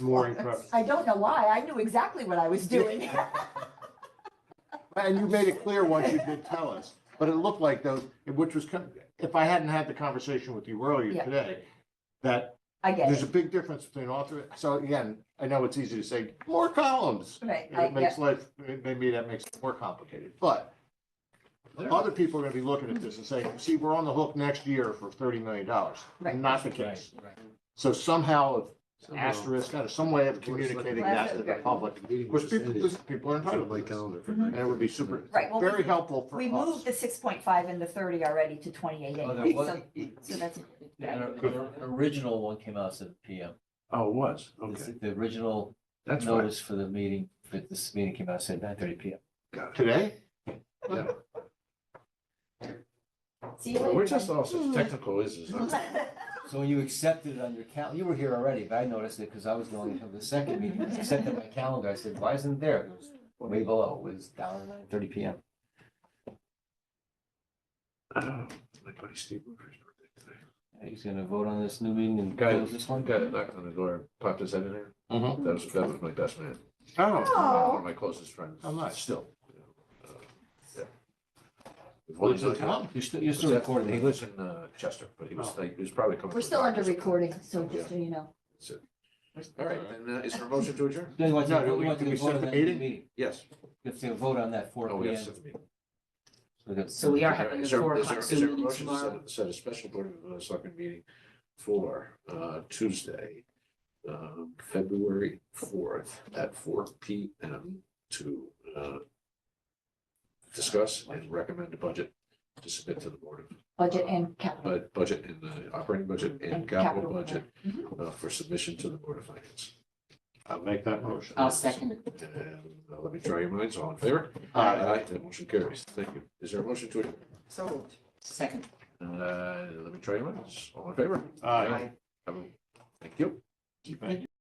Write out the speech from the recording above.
more incredible. I don't know why. I knew exactly what I was doing. And you made it clear once you did tell us, but it looked like those, which was, kind- if I hadn't had the conversation with you earlier Yeah. today, that I get there's it. a big difference between author, so again, I know it's easy to say, more columns. Right, And I, It Uh, yeah, makes life, maybe that makes it more complicated, but other people are gonna be looking at this and saying, see, we're on the hook next year for thirty million dollars. Right. Not the case. So somehow, an asterisk, kind of some way of communicating that to the public, which people, because people are entitled Mm-hmm. to this. And it would be super, Right, well, very we- helpful for we moved us. the six point five and the thirty already to twenty-eight Oh, that was- So, so that's, An or- an original one came out seven P M. Oh, it was, okay, The original that's right. notice for the meeting, that this meeting came out at nine thirty P M. Today? see you later. We're just also technical, uh, isn't it? So when you accepted it on your cal, you were here already, but I noticed it because I was going to the second meeting, I accepted my calendar, I said, why isn't it there? It was Way below, it was down at nine thirty P M. Oh, My buddy Steve Murphy's birthday today. He's gonna vote on this new meeting and Guy- close this one. Guy that knocked on the door, popped his head in there, Mhm. that was, that was my best man, Oh, one Oh, of my closest friends. how much? Still. Well, he's in town. You're still, you're still recording. He lives in uh, Chester, but he Oh. was, like, he was probably coming. we're from still under Rochester. recording, so just so you know. All right, then, uh, is there a motion to adjourn? No, you want to- No, do you we- want to do we vote on set the that meeting? Yes. You have to vote on that four Oh, P we M. have to set the meeting. So we are having the Is there- four is there- o'clock is there a Zoom meeting motion to set- tomorrow. Set a special board of uh, selectmen meeting for uh, Tuesday, um, February fourth at four P M to uh, discuss and recommend a budget to submit to the board of, Budget and capital. but budget and the operating budget and And capital capital budget Mm-hmm. uh, for submission to the board of finance. I'll make that motion. I'll second it. And uh, let me try your minds, all in favor? Aye. That motion carries. Thank you. Is there a motion to, So moved. Second. uh, let me try your minds, all in favor? Aye. Um, Thank you. Thank you.